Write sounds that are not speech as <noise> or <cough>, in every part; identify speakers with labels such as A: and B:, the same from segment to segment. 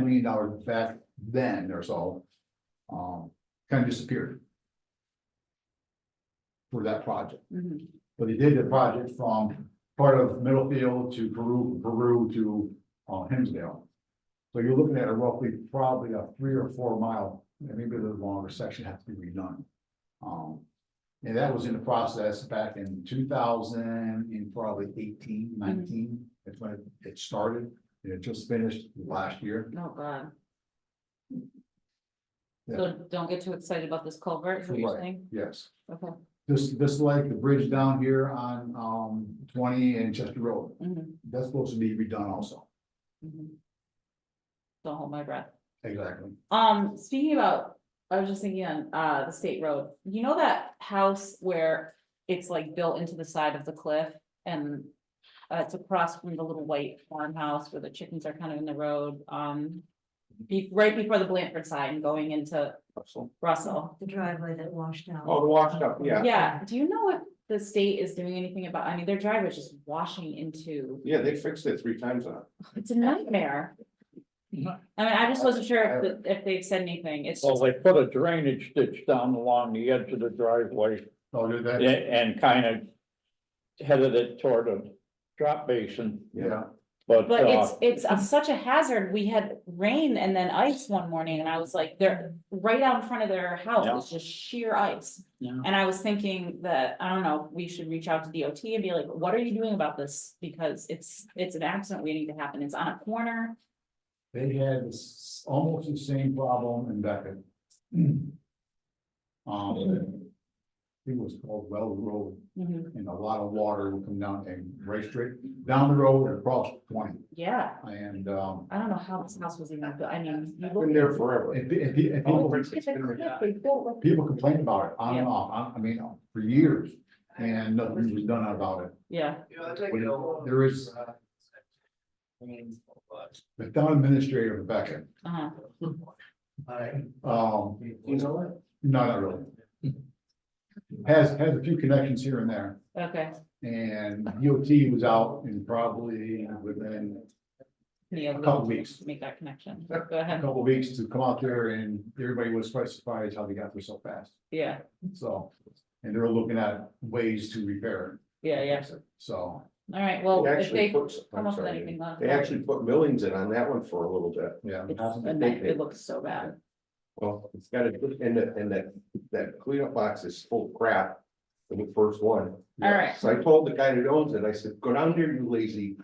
A: million dollars back then or so. Um, kind of disappeared. For that project,
B: Mhm.
A: but he did the project from part of Middlefield to Peru, Peru to, uh, Hemsdale. So you're looking at a roughly, probably a three or four mile, maybe a little longer section has to be redone. Um, and that was in the process back in two thousand and probably eighteen, nineteen, that's when it- it started. And it just finished last year.
B: Oh, God.
A: Yeah.
B: So don't get too excited about this culvert, is what you're
A: Right.
B: saying?
A: Yes,
B: Okay.
A: just, just like the bridge down here on, um, twenty and Chester Road,
B: Mhm,
A: that's supposed to be redone also.
B: mhm. Don't hold my breath.
A: Exactly.
B: Um, speaking about, I was just thinking on, uh, the state road, you know that house where it's like built into the side of the cliff and. Uh, it's across from the little white farmhouse where the chickens are kind of in the road, um. Be, right before the Blanford sign going into
A: Russell.
B: Russell.
C: The driveway that washed out.
D: Oh, the washed up, yeah.
B: Yeah, do you know if the state is doing anything about, I mean, their driveway is just washing into,
D: Yeah, they fixed it three times now.
B: it's a nightmare.
E: Mm-hmm.
B: I mean, I just wasn't sure if, the- if they've said anything, it's
E: Well,
B: just,
E: they put a drainage ditch down along the edge of the driveway
A: Oh, did
E: a-
A: that?
E: and kind of headed it toward a drop basin,
A: Yeah,
E: but,
B: but it's,
E: uh,
B: it's a- such a hazard, we had rain and then ice one morning, and I was like, they're right out in front of their house,
E: Yeah.
B: it's just sheer ice.
E: Yeah.
B: And I was thinking that, I don't know, we should reach out to DOT and be like, what are you doing about this? Because it's, it's an accident waiting to happen, it's on a corner,
A: they had this- almost the same problem in Beckett. <clears throat> Um, it was called Well Road.
E: Mm-hmm.
B: Mhm,
A: and a lot of water will come down and race straight down the road and across twenty.
B: yeah.
A: And, um,
B: I don't know how this house was even built, I mean, you
D: Been
B: look.
D: there forever.
A: and, pe- and pe- and
D: Oh,
A: people,
D: it's-
B: It's a cliff, they built like-
A: people complain about it on and off, I, I mean, for years, and nothing was done about it.
B: Yeah,
A: When There is. The town administrator of Beckett,
B: uh-huh,
A: um,
D: You know what?
A: no, not really. Has, has a few connections here and there.
B: okay,
A: And DOT was out and probably within
B: yeah,
A: a couple weeks,
B: make that connection, go
A: a
B: ahead,
A: couple weeks to come out there and everybody was quite surprised how they got there so fast.
B: yeah,
A: So, and they're looking at ways to repair
B: yeah,
A: it.
B: yeah,
A: So,
B: all right, well,
D: They
B: if
D: actually
B: they
D: put,
B: come
D: I'm
B: up with
D: sorry,
B: anything. let us
D: they
B: know.
D: actually put millings in on that one for a little bit.
A: yeah.
B: It's
A: hasn't
B: a
A: been-
B: night, it looks so bad,
D: Well, it's got a, and that, and that, that cleanup box is full of crap. in The first one.
B: all right,
D: So I told the guy that owns it, I said, go down there, you lazy.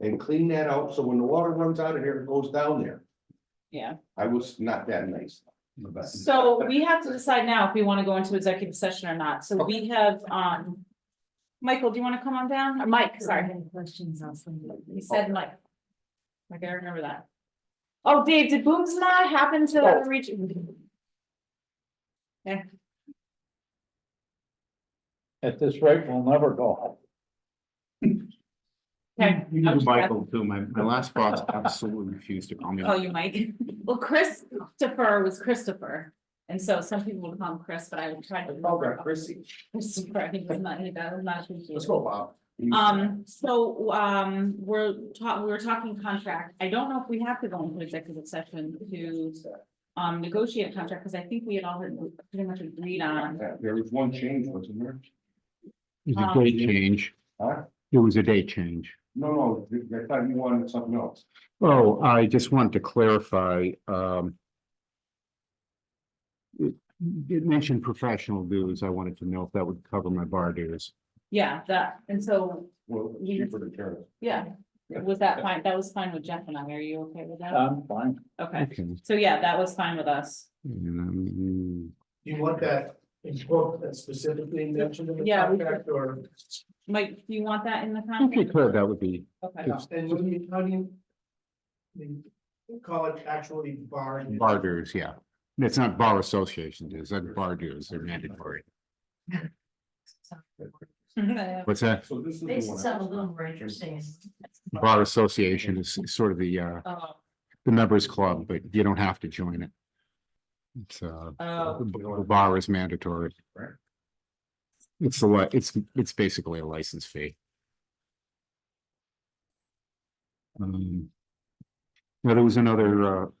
D: And clean that out, so when the water runs out of here, it goes down there.
B: yeah,
D: I was not that nice.
A: in the back.
B: so we have to decide now if we wanna go into executive session or not, so we have, um. Michael, do you wanna come on down, or Mike,
C: Sorry, I
B: sorry,
C: had questions also.
B: he
D: Oh.
B: said Mike. I gotta remember that. Oh, Dave, did Boomsma happen
D: Oh.
B: to reach?
E: at this rate, we'll never go.
B: Okay.
F: You
B: I'm
F: do
B: just-
F: Michael too. My, my last boss absolutely refused to call me.
B: call Oh, you Mike. <laughs> Well, Christopher was Christopher. And so some people would call him Chris, but I would try to. remember
D: Chrissy.
B: Christopher, I think it's not, that was not
A: Let's
B: appreciated.
A: go, Bob.
B: Um, so, um, we're ta- we were talking contract. I don't know if we have to go into executive session to um, negotiate a contract, because I think we had all pretty much agreed on.
D: Yeah, There was one change, wasn't there?
F: It
B: was
F: was
B: a
F: a
B: date
F: date change.
D: Huh?
F: It was a date change.
D: No, no, I thought you wanted something else.
F: Oh, I just wanted to clarify, um. It, it mentioned professional dues. I wanted to know if that would cover my bar dues.
B: Yeah, that, and so,
D: Well,
B: You-
D: cheaper to turn.
B: yeah, was that fine? That was fine with Jeff and I. Are you okay with
A: Uh,
B: that?
E: I'm fine.
B: Okay,
F: Okay.
B: so yeah, that was fine with us.
F: And, um,
G: You want that in book that specifically mentioned in the
B: Yeah, we-
G: contract or?
B: Mike, do you want that in the
F: okay,
B: contract?
F: Claire, that would be,
B: Okay.
F: Yes.
G: And what do you, how do you? I mean, Call it actually bar.
F: bar dues, yeah. It's not bar association dues, that's bar dues, they're mandatory.
B: <laughs>
F: What's that?
D: So this is. the
C: They
D: one I
C: sound a
D: was-
C: little more interesting.
F: Bar association is sort of the, uh,
B: Oh,
F: the members club, but you don't have to join it. It's, uh,
B: oh,
F: the b- the bar is mandatory.
D: Right.
F: It's a lot, it's, it's basically a license fee. Um, Now, there was another, uh,